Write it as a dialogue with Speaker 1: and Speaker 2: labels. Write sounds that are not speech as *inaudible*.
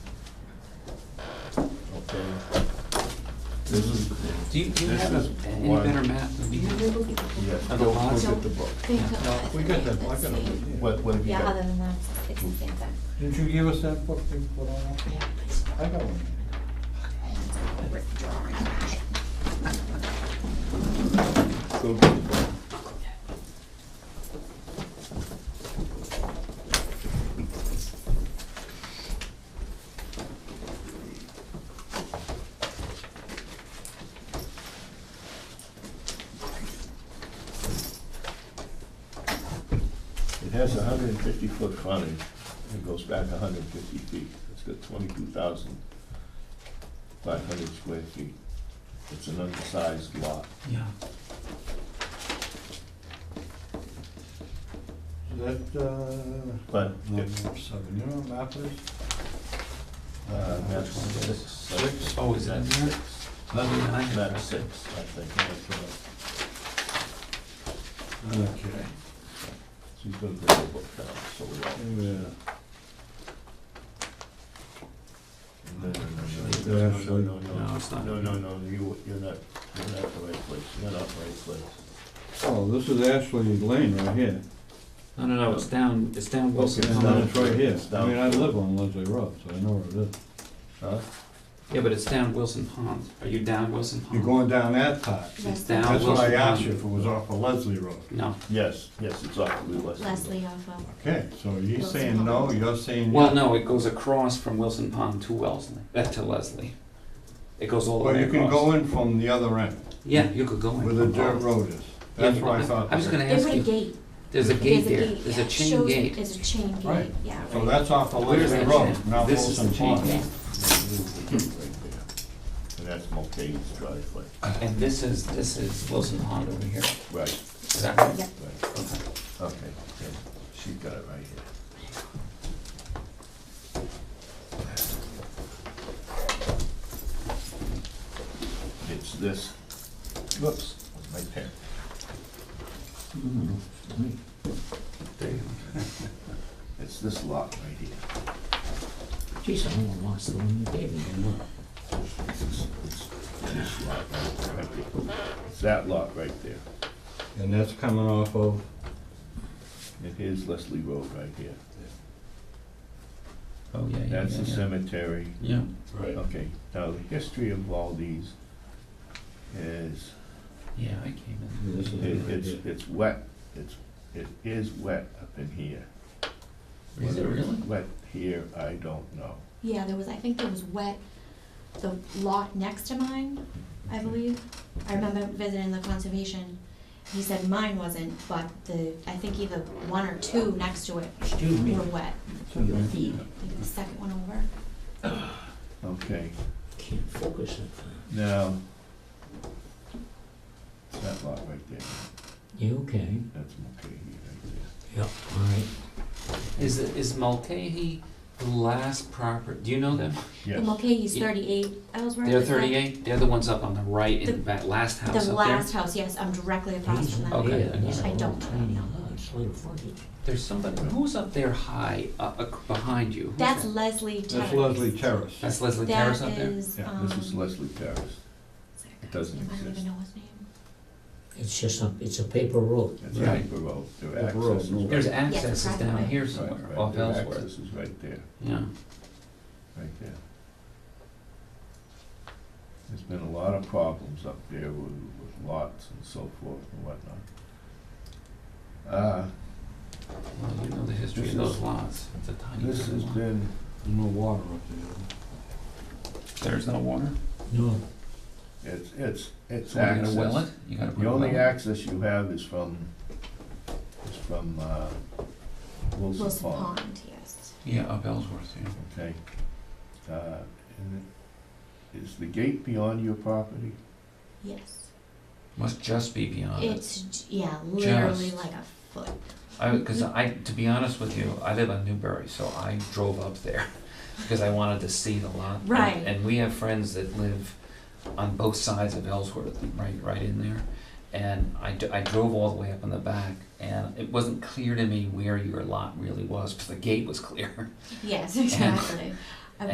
Speaker 1: This is,
Speaker 2: Do you, do you
Speaker 1: This
Speaker 2: have
Speaker 1: is
Speaker 2: a- any
Speaker 1: one.
Speaker 2: better map than we have?
Speaker 1: yes,
Speaker 2: Are the
Speaker 1: go
Speaker 2: laws-
Speaker 1: look at the book.
Speaker 3: They took
Speaker 2: No,
Speaker 3: us
Speaker 4: We
Speaker 3: to
Speaker 4: got
Speaker 3: make
Speaker 4: that,
Speaker 3: the
Speaker 4: I got
Speaker 3: same.
Speaker 4: it.
Speaker 1: What, what have you
Speaker 3: Yeah,
Speaker 1: got?
Speaker 3: other than that, it's the same thing.
Speaker 4: Did you give us that book we put on?
Speaker 3: Yeah,
Speaker 4: I got one.
Speaker 3: but it's a drawing.
Speaker 1: Go get the book. It has a hundred and fifty foot frontage, and it goes back a hundred and fifty feet. It's got twenty-two thousand five hundred square feet. It's an undersized lot.
Speaker 2: Yeah.
Speaker 4: Is that, uh?
Speaker 1: But
Speaker 4: Number
Speaker 1: if,
Speaker 4: seven, you know what map is?
Speaker 1: uh, map six, six.
Speaker 2: Oh, is that in there?
Speaker 1: six?
Speaker 2: Well, I mean, I have-
Speaker 1: Map six, I think, that's right.
Speaker 4: Okay.
Speaker 1: She's gonna bring the book down, so we all.
Speaker 4: Yeah.
Speaker 1: No, no, no,
Speaker 4: Yeah,
Speaker 1: no, no,
Speaker 4: actually-
Speaker 1: no, no,
Speaker 2: No, it's not.
Speaker 1: no, no, no, you, you're not, you're not the right place, you're not the right place.
Speaker 4: Oh, this is Ashley Lane right here.
Speaker 2: No, no, no, it's down, it's down Wilson.
Speaker 1: Okay,
Speaker 4: And
Speaker 1: down.
Speaker 4: then it's right here. I
Speaker 1: down.
Speaker 4: mean, I live on Leslie Road, so I know where it is.
Speaker 1: Huh?
Speaker 2: Yeah, but it's down Wilson Pond. Are you down Wilson Pond?
Speaker 4: You're going down that path.
Speaker 2: It's
Speaker 3: That's
Speaker 2: down
Speaker 4: That's
Speaker 2: Wilson Pond.
Speaker 4: what I asked you if it was off of Leslie Road.
Speaker 2: No,
Speaker 1: Yes, yes, it's off the Leslie.
Speaker 3: Leslie off of,
Speaker 4: Okay, so you're saying no, you're saying
Speaker 2: well,
Speaker 4: yes.
Speaker 2: no, it goes across from Wilson Pond to Wellesley, uh, to Leslie. It goes all the
Speaker 4: Well,
Speaker 2: way
Speaker 4: you
Speaker 2: across.
Speaker 4: can go in from the other end,
Speaker 2: Yeah, you could go in.
Speaker 4: where the
Speaker 2: from
Speaker 4: dirt
Speaker 2: both.
Speaker 4: road is.
Speaker 2: Yeah,
Speaker 4: That's where I thought.
Speaker 2: I was gonna
Speaker 3: they
Speaker 2: ask
Speaker 3: put a
Speaker 2: you,
Speaker 3: gate.
Speaker 2: there's a gate
Speaker 3: There's
Speaker 2: there,
Speaker 3: gate,
Speaker 2: there's
Speaker 3: yeah.
Speaker 2: a chain
Speaker 3: Shows
Speaker 2: gate.
Speaker 3: There's a chain gate,
Speaker 4: Right.
Speaker 3: yeah, right.
Speaker 4: So that's off of
Speaker 2: Where's
Speaker 4: Leslie
Speaker 2: that
Speaker 4: Oh, Road,
Speaker 2: chain?
Speaker 4: not
Speaker 2: This is
Speaker 4: Wilson
Speaker 2: the chain
Speaker 4: Pond.
Speaker 2: gate.
Speaker 1: And that's Mulcahy's driveway,
Speaker 2: And this is, this is Wilson Pond over here.
Speaker 1: right,
Speaker 2: Is that right?
Speaker 3: Yeah.
Speaker 1: right,
Speaker 2: Okay.
Speaker 1: okay, yeah, she's got it right here. It's this, whoops, my pen.
Speaker 2: There you
Speaker 1: It's this lot right here.
Speaker 2: go. Geez, I almost lost the one you gave me.
Speaker 1: It's- It's this lot right there. It's that lot right there.
Speaker 4: And that's coming off of,
Speaker 1: And here's Leslie Road right here.
Speaker 2: Oh, yeah, yeah,
Speaker 1: That's the
Speaker 2: yeah, yeah.
Speaker 1: cemetery.
Speaker 2: Yeah.
Speaker 4: right,
Speaker 1: Okay, now the history of all these is,
Speaker 2: Yeah, I came in.
Speaker 4: This
Speaker 1: it-
Speaker 4: is-
Speaker 1: it's, it's wet, it's, it is wet up in here.
Speaker 2: Is it
Speaker 1: Whether it's
Speaker 2: really?
Speaker 1: Wet here, I don't know.
Speaker 3: Yeah, there was, I think there was wet, the lot next to mine, I believe. I remember visiting the conservation, he said mine wasn't, but the, I think either one or two next to it
Speaker 5: Excuse me,
Speaker 3: were wet.
Speaker 5: for your feet,
Speaker 3: I think the second one over.
Speaker 1: Okay,
Speaker 5: can't focus on
Speaker 1: now, it's that lot right there,
Speaker 5: that. You okay?
Speaker 1: that's Mulcahy right there.
Speaker 5: Yeah. All right.
Speaker 2: Is, is Mulcahy the last proper, do you know them?
Speaker 3: The
Speaker 1: Yes,
Speaker 3: Mulcahy's
Speaker 2: Yeah.
Speaker 3: thirty-eight Ellsworth.
Speaker 2: They're
Speaker 3: is that-
Speaker 2: thirty-eight, they're the ones up on the right in the
Speaker 3: The-
Speaker 2: back, last house up
Speaker 3: The
Speaker 2: there.
Speaker 3: last house, yes, I'm directly across from that.
Speaker 2: Okay.
Speaker 5: Yeah, and that's
Speaker 3: I
Speaker 5: a
Speaker 3: don't
Speaker 5: little
Speaker 3: know.
Speaker 5: tiny house, little frontage.
Speaker 2: There's somebody, who's up there high, uh, uh, behind you? Who's
Speaker 3: That's
Speaker 2: that?
Speaker 3: Leslie Terrace.
Speaker 4: that's Leslie Terrace.
Speaker 2: That's Leslie
Speaker 3: That
Speaker 2: Terrace up there?
Speaker 3: is,
Speaker 4: Yeah,
Speaker 3: um.
Speaker 1: this is Leslie Terrace,
Speaker 3: is that a
Speaker 1: It doesn't
Speaker 3: guy? I don't
Speaker 1: exist.
Speaker 3: even know his name.
Speaker 5: It's just a, it's a paper road.
Speaker 1: that's
Speaker 2: Right.
Speaker 1: Paper Road, their
Speaker 4: Paper Road,
Speaker 1: access is
Speaker 4: no.
Speaker 1: right.
Speaker 2: There's
Speaker 1: right,
Speaker 2: access is
Speaker 3: private
Speaker 2: down
Speaker 3: way.
Speaker 2: here somewhere,
Speaker 1: right,
Speaker 2: off
Speaker 1: their
Speaker 2: Ellsworth,
Speaker 1: Access is right there,
Speaker 2: yeah.
Speaker 1: right there. There's been a lot of problems up there with, with lots and so forth and whatnot. Uh,
Speaker 2: Well, you know the history
Speaker 1: This
Speaker 2: of those
Speaker 1: is-
Speaker 2: lots, it's a tiny
Speaker 1: this has
Speaker 2: little lot.
Speaker 1: been,
Speaker 4: No water up
Speaker 2: There's no water?
Speaker 5: No,
Speaker 1: it's, it's, it's
Speaker 2: So you gotta well
Speaker 1: access.
Speaker 2: it, you gotta put
Speaker 1: The
Speaker 2: a well.
Speaker 1: only access you have is from, is from, uh,
Speaker 3: Wilson
Speaker 1: Wilson Pond,
Speaker 3: Pond, yes.
Speaker 2: Yeah, up Ellsworth, yeah.
Speaker 1: okay? Uh, and is the gate beyond your property?
Speaker 3: Yes.
Speaker 2: Must just be
Speaker 1: Uh,
Speaker 2: beyond it.
Speaker 3: It's, j- yeah, literally
Speaker 2: Just.
Speaker 3: like a foot.
Speaker 2: I, because I, to be honest with you, I live on Newbury, so I drove up there *laughs* because I wanted to see the lot.
Speaker 3: Right.
Speaker 2: And, and we have friends that live on both sides of Ellsworth, right, right in there. And I, d- I drove all the way up in the back, and it *laughs*
Speaker 3: *laughs*
Speaker 2: wasn't clear to me where your lot really was, because the gate was clear.
Speaker 3: Yes, exactly.